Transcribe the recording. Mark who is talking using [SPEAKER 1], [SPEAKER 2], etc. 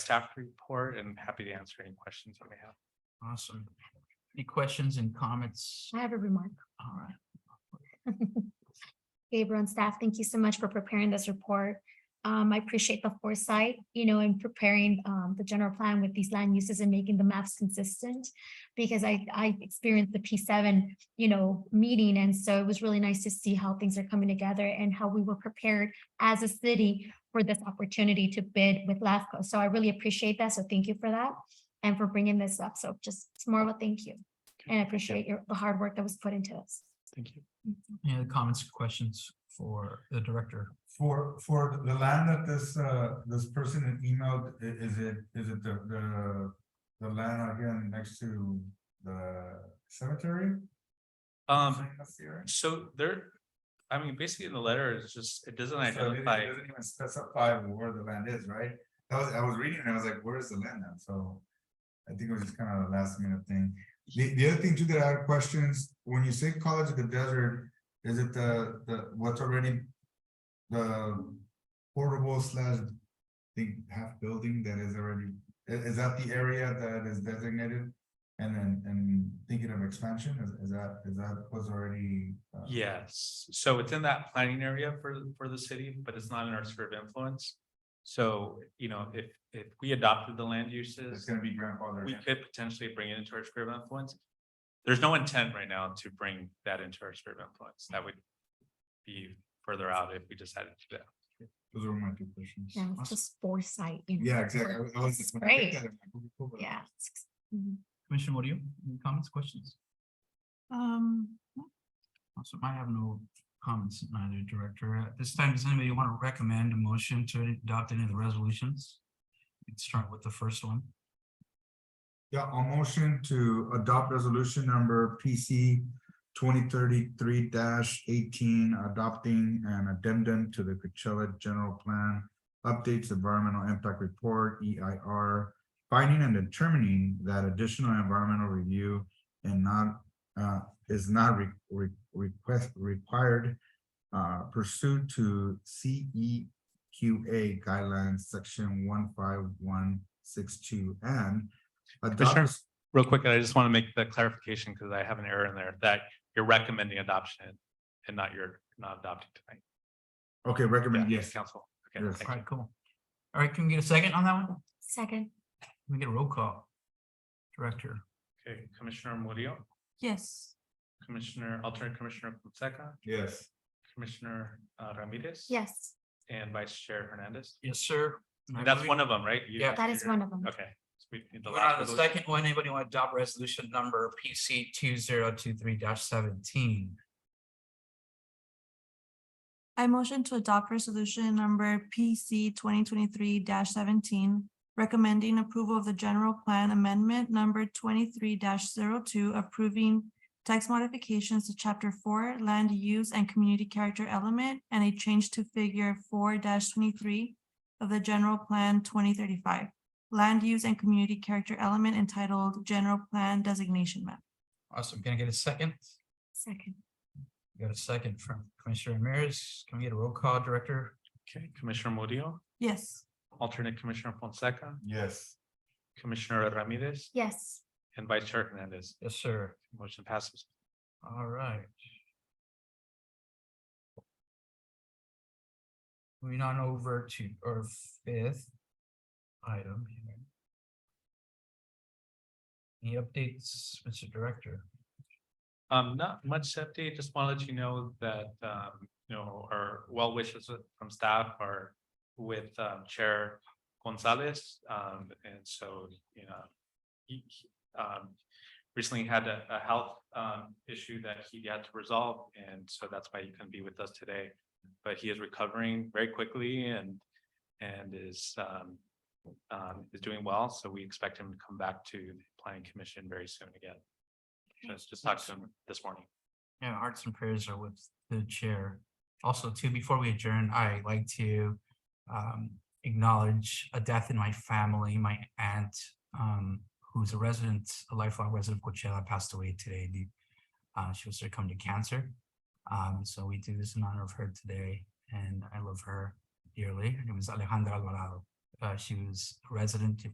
[SPEAKER 1] staff report and happy to answer any questions that we have.
[SPEAKER 2] Awesome. Any questions and comments?
[SPEAKER 3] I have a remark.
[SPEAKER 2] All right.
[SPEAKER 3] Gabriel and staff, thank you so much for preparing this report. Um, I appreciate the foresight, you know, in preparing, um, the general plan with these land uses and making the maps consistent. Because I, I experienced the P seven, you know, meeting, and so it was really nice to see how things are coming together and how we were prepared as a city for this opportunity to bid with LAFCO. So I really appreciate that, so thank you for that and for bringing this up. So just, it's more of a thank you. And I appreciate your, the hard work that was put into this.
[SPEAKER 1] Thank you.
[SPEAKER 2] Any other comments, questions for the director?
[SPEAKER 4] For, for the land that this, uh, this person had emailed, i- is it, is it the, the, the land again next to the cemetery?
[SPEAKER 1] Um,
[SPEAKER 4] That's here?
[SPEAKER 1] so there, I mean, basically in the letter, it's just, it doesn't
[SPEAKER 4] So it didn't-
[SPEAKER 1] identify.
[SPEAKER 4] it Doesn't even specify where the land is, right? I was, I was reading and I was like, where is the land then? So I think it was just kind of a last minute thing. The, the other thing too that I had questions, when you say College of the Desert, is it the, the, what's already the portable slash the half building that is already, i- is, that the area that is designated? And then, and thinking of expansion, is, is that, is that was already? uh,
[SPEAKER 1] Yes, so it's in that planning area for, for the city, but it's not in our sphere of influence. So, you know, if, if we adopted the land
[SPEAKER 4] It's
[SPEAKER 1] uses,
[SPEAKER 4] gonna be grandfathered.
[SPEAKER 1] we
[SPEAKER 4] in?
[SPEAKER 1] could potentially bring it into our sphere of influence. There's no intent right now to bring that into our sphere of influence. That would be further out if we decided to do that.
[SPEAKER 4] Those were my two questions.
[SPEAKER 3] Yeah, it's just foresight. you know,
[SPEAKER 4] Yeah,
[SPEAKER 3] for-
[SPEAKER 4] exactly. I
[SPEAKER 3] It's
[SPEAKER 4] was just when I picked
[SPEAKER 3] great.
[SPEAKER 4] that, I'm like, "Ooh, cool."
[SPEAKER 3] Yeah. it's- mhm.
[SPEAKER 2] Commissioner, what do you, any comments, questions?
[SPEAKER 5] Um,
[SPEAKER 2] Also, I have no comments, neither director. At this time, does anybody want to recommend a motion to adopt any of the resolutions? Let's start with the first one.
[SPEAKER 4] Yeah, a motion to adopt resolution number PC twenty thirty-three eighteen, adopting an addendum to the Coachella General Plan. Updates Environmental Impact Report, EIR, finding and determining that additional environmental review and not uh is not re- re- request required uh pursuit to CEQA guidelines, section one five one six two and
[SPEAKER 1] Commissioner?
[SPEAKER 4] adopt
[SPEAKER 1] Real quick, I just want to make the clarification because I have an error in there that you're recommending adoption and not you're not adopting tonight.
[SPEAKER 4] Okay, recommend,
[SPEAKER 1] Yeah,
[SPEAKER 4] yes.
[SPEAKER 1] Council. Okay,
[SPEAKER 4] Yes.
[SPEAKER 1] thank
[SPEAKER 2] All
[SPEAKER 1] you.
[SPEAKER 2] right, cool. All right, can we get a second on that one? Can
[SPEAKER 3] Second,
[SPEAKER 2] we get a roll call? Director,
[SPEAKER 1] Okay, Commissioner Murillo,
[SPEAKER 5] yes,
[SPEAKER 1] Commissioner, alternate Commissioner Fonseca,
[SPEAKER 4] Yes.
[SPEAKER 1] Commissioner uh, Ramirez.
[SPEAKER 3] yes,
[SPEAKER 1] And Vice Chair Hernandez.
[SPEAKER 2] yes, sir.
[SPEAKER 1] That's one of them, right? You-
[SPEAKER 2] Yeah.
[SPEAKER 3] that is one of them.
[SPEAKER 1] Okay. So we need the
[SPEAKER 2] We're on
[SPEAKER 1] last
[SPEAKER 2] Uh, the
[SPEAKER 1] resolution.
[SPEAKER 2] second one, anybody want to adopt resolution number PC two zero two three seventeen?
[SPEAKER 5] I motion to adopt resolution number PC twenty twenty-three seventeen. Recommending approval of the general plan amendment number twenty-three 2 approving. Tax modifications to chapter four, land use and community character element, and a change to figure four twenty-three. Of the general plan twenty thirty-five, land use and community character element entitled General Plan Designation Map.
[SPEAKER 2] Awesome, can I get a second?
[SPEAKER 3] Second,
[SPEAKER 2] Got a second from Commissioner Ramirez, can we get a roll call, Director?
[SPEAKER 1] Okay, Commissioner Murillo,
[SPEAKER 5] Yes.
[SPEAKER 1] alternate Commissioner Fonseca,
[SPEAKER 4] Yes.
[SPEAKER 1] Commissioner Ramirez
[SPEAKER 3] yes,
[SPEAKER 1] and Vice Chair Hernandez.
[SPEAKER 2] Yes, sir.
[SPEAKER 1] Motion passes.
[SPEAKER 2] All right. Moving on over to our fifth item. here. Any updates, Mr. Director?
[SPEAKER 1] Um, not much update, just want to let you know that, um, you know, our well wishes from staff are with, um, Chair Gonzalez, um, and so, you know, he, he, um, recently had a, a health, um, issue that he had to resolve, and so that's why he couldn't be with us today. But he is recovering very quickly and, and is, um, um, is doing well, so we expect him to come back to the planning commission very soon again. Just, just talked to him this morning.
[SPEAKER 2] Yeah, our hearts and prayers are with the chair. Also, too, before we adjourn, I like to um acknowledge a death in my family. My aunt, um, who's a resident, a lifelong resident of Coachella, passed away today. The- Uh, she was succumbed to cancer. Um, so we do this in honor of her today, and I love her dearly. Her name is Alejandra Alvarado. uh, she was a resident of